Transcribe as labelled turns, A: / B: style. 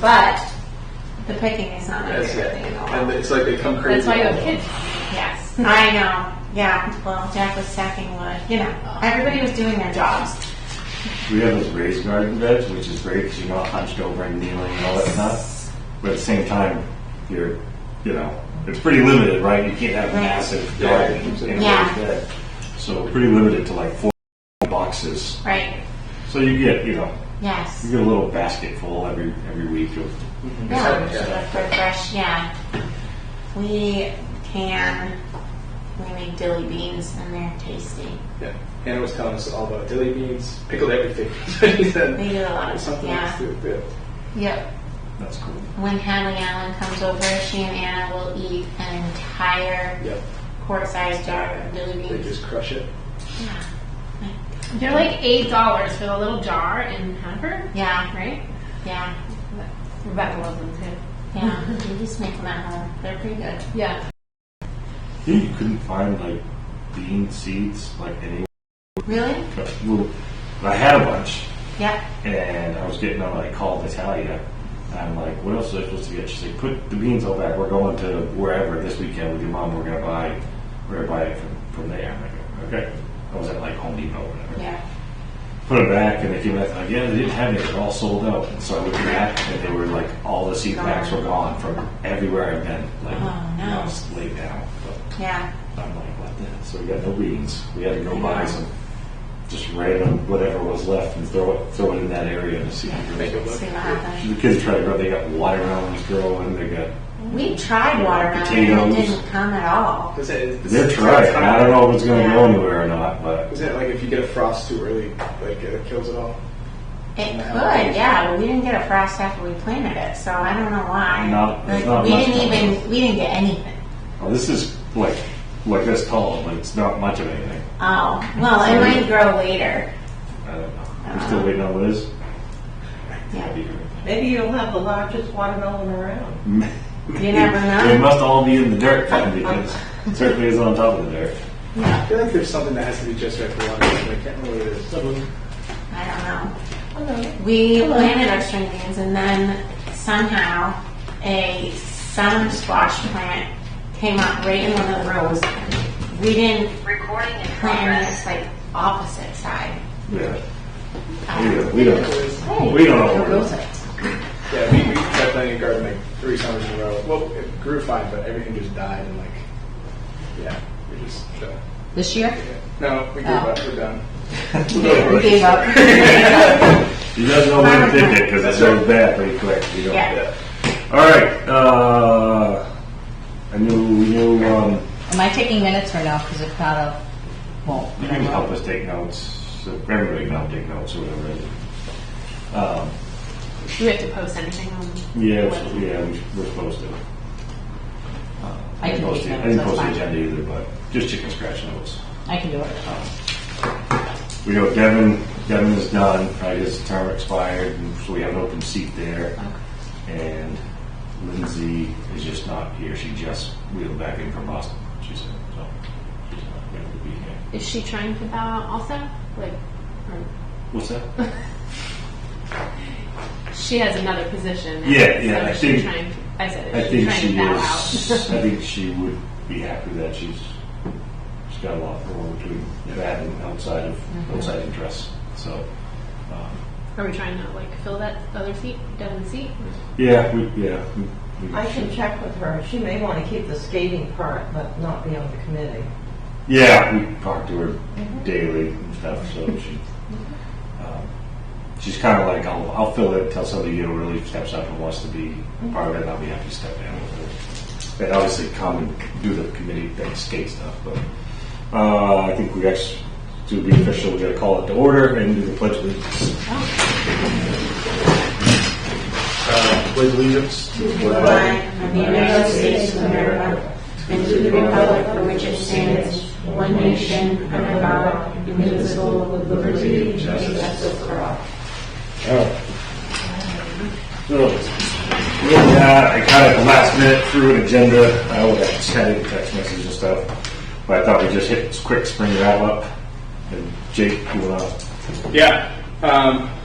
A: but the picking is not my
B: That's
A: favorite
B: it.
A: thing at all.
B: And it's like they come crazy.
C: That's why you have kids.
A: Yes, I know. Yeah, well, Jack was stacking wood. You
B: Uh-huh.
A: know, everybody was doing their jobs.
D: We have those raised garden beds, which is great because you're not hunched over and kneeling and all that stuff. But at the same time, you're, you know, it's pretty limited, right? You can't have a
A: Right.
D: massive
B: Yeah.
D: garden in a raised
A: Yeah.
D: bed. So pretty limited to like four boxes.
A: Right.
D: So you get, you know, you
A: Yes.
D: get a little basket full every, every week of.
A: Yeah.
B: Yeah.
A: Stuff for fresh. Yeah. We can. We make dilly beans and they're tasty.
B: Yeah. Hannah was telling us all about dilly beans, pickled everything. She said
A: They do a lot.
B: Something
A: Yeah.
B: else to do.
A: Yep.
D: That's cool.
A: When Hadley Allen comes over, she and Anna will eat an entire
B: Yep.
A: quart-sized jar of dilly
B: They
A: beans.
B: just crush it.
A: Yeah.
C: They're like eight dollars for the little jar in Hanford,
A: Yeah.
C: right?
A: Yeah.
C: Rebecca loves them too.
A: Yeah. we just make them at home. They're pretty good.
C: Yeah.
D: Yeah, you couldn't find like bean seeds, like any,
A: Really?
D: well, I had a bunch.
A: Yep.
D: And I was getting on, I called Italia. And I'm like, what else was I supposed to get? She's like, put the beans all back. We're going to wherever this weekend with your mom. We're going to buy, we're going to buy it from, from there. I'm like, okay. I was at like Home Depot or whatever.
A: Yeah.
D: Put it back and they came back. Like, yeah, they didn't have any. They're all sold out. And so I looked back and they were like, all the seed packs were gone from everywhere I've been. Like,
A: Oh, no.
D: I was laid down. But
A: Yeah.
D: I'm like, what the? hell? So we got no beans. We had to go buy some just random whatever was left and throw it, throw it in that area to see if
B: Make it look.
A: See what
B: good.
A: happens.
D: the kids try to grow. They got watermelons growing. They got
A: We tried watermelon and it
D: Potatoes.
A: didn't come at all.
B: Is it, is
D: they're
B: it-
D: trying. I don't know if it's going to
A: Yeah.
D: go anywhere or not, but
B: Is it like if you get a frost too early, like it kills it all?
A: It could, yeah, but we didn't get a frost after we planted it, so I don't know why.
D: Not- there's
A: Like,
D: not
A: we
D: much
A: didn't
D: going
A: even we didn't get anything.
D: oh, this is like like this tall, but it's not much of anything.
A: Oh well, it might grow later.
D: I don't know. We're still waiting on Liz.
A: Uh-huh. Yeah,
E: Maybe you'll have the largest watermelon around.
A: you never
D: They
A: know.
D: must all be in the dirt then, because it certainly is on top of the dirt.
B: I feel like there's something that has to be just right for water. but I can't remember what it is.
A: I don't know.
E: Hello.
A: We planted our string beans and then somehow a sun squash plant came up right in one of the rows. We didn't
F: Recording in
A: plant
F: progress.
A: its like opposite side.
D: Yeah.
A: Uh,
D: We don't. We don't, we don't know where it is.
B: Yeah, we, we tried planting a garden like three summers in a row. Well, it grew fine, but everything just died and like, yeah, we just. Uh,
G: This year?
B: no, we gave up. We're done.
A: We gave up.
D: You guys know when to pick it because it goes bad pretty quick. You don't-
A: Yeah.
D: All right. Uh, I knew we knew. Um,
G: Am I taking minutes or no? Because if not, I'll, well,
D: You can help us take notes, so everybody can help take notes, or whatever. it is. Um,
C: Do we have to post anything on?
D: yeah, we- yeah, we- we're supposed to. Uh,
G: I can
D: post
G: take
D: the-
G: notes,
D: I didn't
G: that's
D: post the
G: fine.
D: agenda either, but just chicken scratch notes.
G: I can do it.
D: We know Devin, Devin is done, right, his term expired, and so we have an open seat there. And Lindsay is just not here, she just wheeled back in from Boston, she said, so she's not going to be here.
C: Is she trying to bow out also? Like, or
D: What's that?
C: she has another position.
D: Yeah, yeah,
C: So
D: I
C: is she
D: think-
C: trying. I said, is
D: I think
C: trying
D: she
C: to bow
D: is.
C: out?
D: I think she would be happy that she's she's got a lot more between that and outside of
C: Mm-hmm.
D: outside interests. So um,
C: Are we trying to like fill that other seat, Devin's seat?
D: yeah, we, yeah. We, we
E: I can check with her. She may want to keep the skating part, but not be on the committee.
D: Yeah, we talk to her daily and stuff. So she um, she's kind of like I'll, I'll fill it until somebody you know really steps up and wants to be a part of it. and I'll be happy to step down with her. And obviously come and do the committee thing, skate stuff, but. Uh, I think we actually, to be official, we gotta call it to order and do the pledge of allegiance. Uh, Pledge allegiance to the flag
A: of the United States of America and to the republic for which it stands, one nation, under God, indivisible, with liberty and justice for all.
D: Oh. So, with that, I kind of last minute threw an agenda, I would have sent a text message and stuff, but I thought we'd just hit this quick spring wrap up. And Jake, you wanna,
B: Yeah. Um,